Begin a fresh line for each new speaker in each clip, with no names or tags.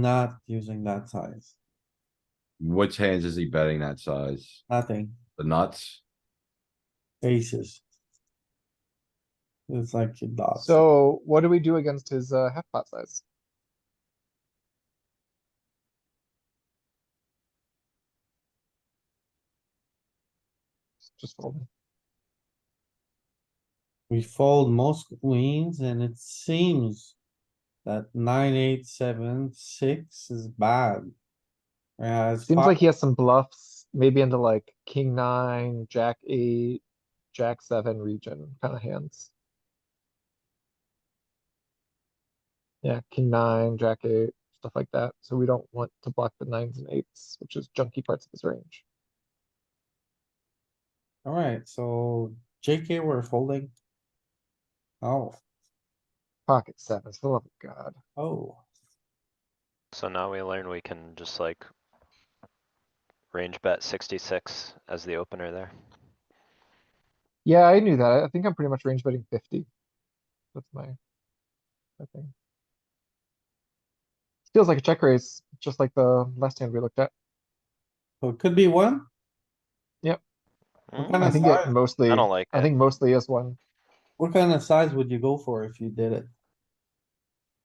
not using that size,
Which hands is he betting that size?
nothing,
The nuts?
aces. It's like a dot.
So what do we do against his uh half pot size? Just fold.
We fold most queens and it seems that nine, eight, seven, six is bad. Whereas.
Seems
fi-
like he has some bluffs, maybe into like king nine, jack eight, jack seven region kind of hands. Yeah, king nine, jack eight, stuff like that. So we don't want to block the nines and eights, which is junky parts of his range.
Alright, so JK, we're folding. Oh,
Pocket sevens, for the love of God.
oh,
So now we learn we can just like range bet sixty-six as the opener there.
Yeah, I knew that. I think I'm pretty much range betting fifty. That's my, my thing. Feels like a check raise, just like the last hand we looked at.
so it could be one?
Mm,
kind
I
of
think it
size?
mostly,
I don't like
I
it.
think mostly is one.
What kind of size would you go for if you did it?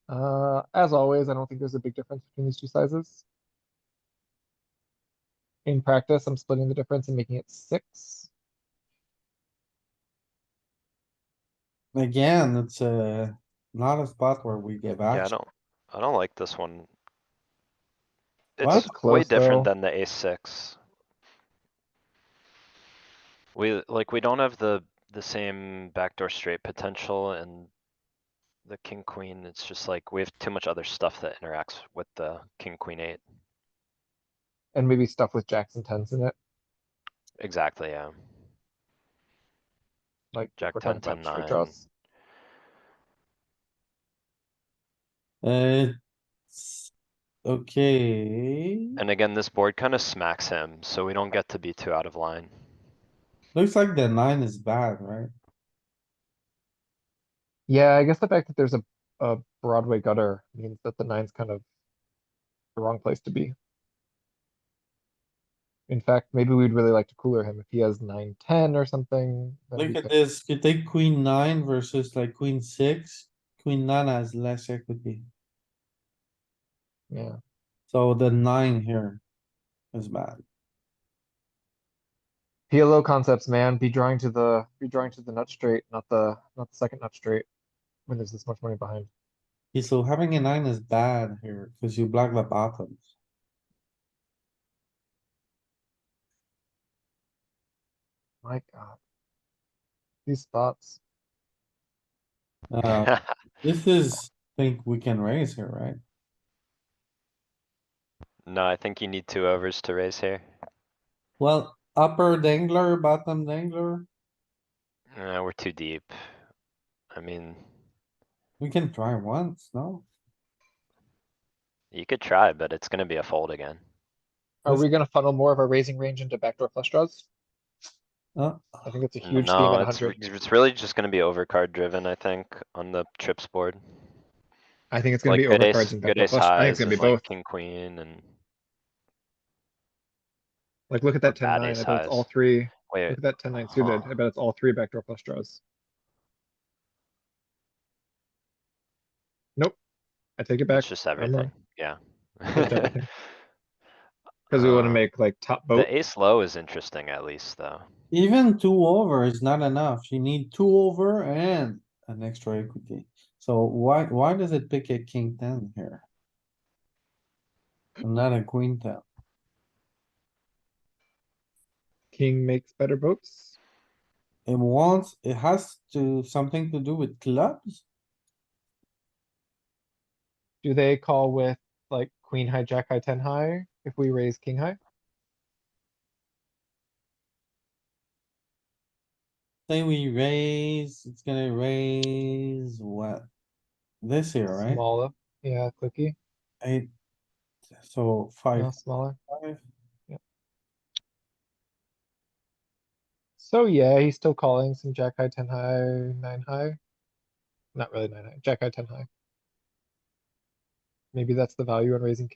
Uh, as always, I don't think there's a big difference between these two sizes. In practice, I'm splitting the difference and making it six.
Again, it's a, not a spot where we give
Yeah, I
action.
don't, I don't like this one.
Well,
It's
it's
way
close,
different
though.
than the ace six. We, like, we don't have the, the same backdoor straight potential and the king, queen, it's just like, we have too much other stuff that interacts with the king, queen, eight.
And maybe stuff with jacks and tens in it,
Exactly, yeah.
like.
Jack
we're talking
10,
about
10,
straight
9.
draws.
Uh, s- okay,
And again, this board kinda smacks him, so we don't get to be too out of line.
looks like the nine is bad, right?
Yeah, I guess the fact that there's a, a Broadway gutter means that the nine's kind of the wrong place to be. In fact, maybe we'd really like to cooler him if he has nine, ten or something. then we
Look at
could-
this, you take queen nine versus like queen six, queen nine has less equity,
Yeah,
so the nine here is bad.
PLO concepts, man, be drawing to the, be drawing to the nut straight, not the, not the second nut straight. When there's this much money behind.
Okay, So having a nine is bad here, cause you block the bottoms.
My god. These spots. Um,
Uh, this is, think we can raise here, right?
No, I think you need two overs to raise here.
Well, upper dangler, bottom dangler,
Uh, we're too deep. I mean,
we can try once, no?
you could try, but it's gonna be a fold again.
Are
This-
we gonna funnel more of our raising range into backdoor flush draws?
Uh,
I think it's a huge theme
Oh, No,
at
it's,
hundred.
it's really just gonna be overcard driven, I think, on the trips board.
I think it's gonna
Like
be
good ace,
overcards and
good
backdoor
ace
flush. I think it's
highs
gonna be
and
both.
like king, queen and,
Like, look at that ten
bad
nine, I
ace
bet it's all
highs.
three, look
wait,
at that ten nine suited,
Huh.
I bet it's all three backdoor flush draws. Nope, I take it back,
it's just
I'm wrong.
everything, yeah.
Just everything. cause we wanna
Uh,
make like top vote,
The ace low is interesting at least, though.
Even two over is not enough. You need two over and an extra equity. So why, why does it pick a king ten here? And Not a queen ten.
king makes better votes.
It wants, it has to, something to do with clubs?
Do they call with like queen high, jack high, ten high, if we raise king high?
Say we raise, it's gonna raise what? This here, right?
Smaller, yeah, clicky,
Eight. So
no,
five,
smaller.
five.
So yeah, he's still calling some jack high, ten high, nine high. Not really nine high, jack high, ten high. maybe that's the value in raising king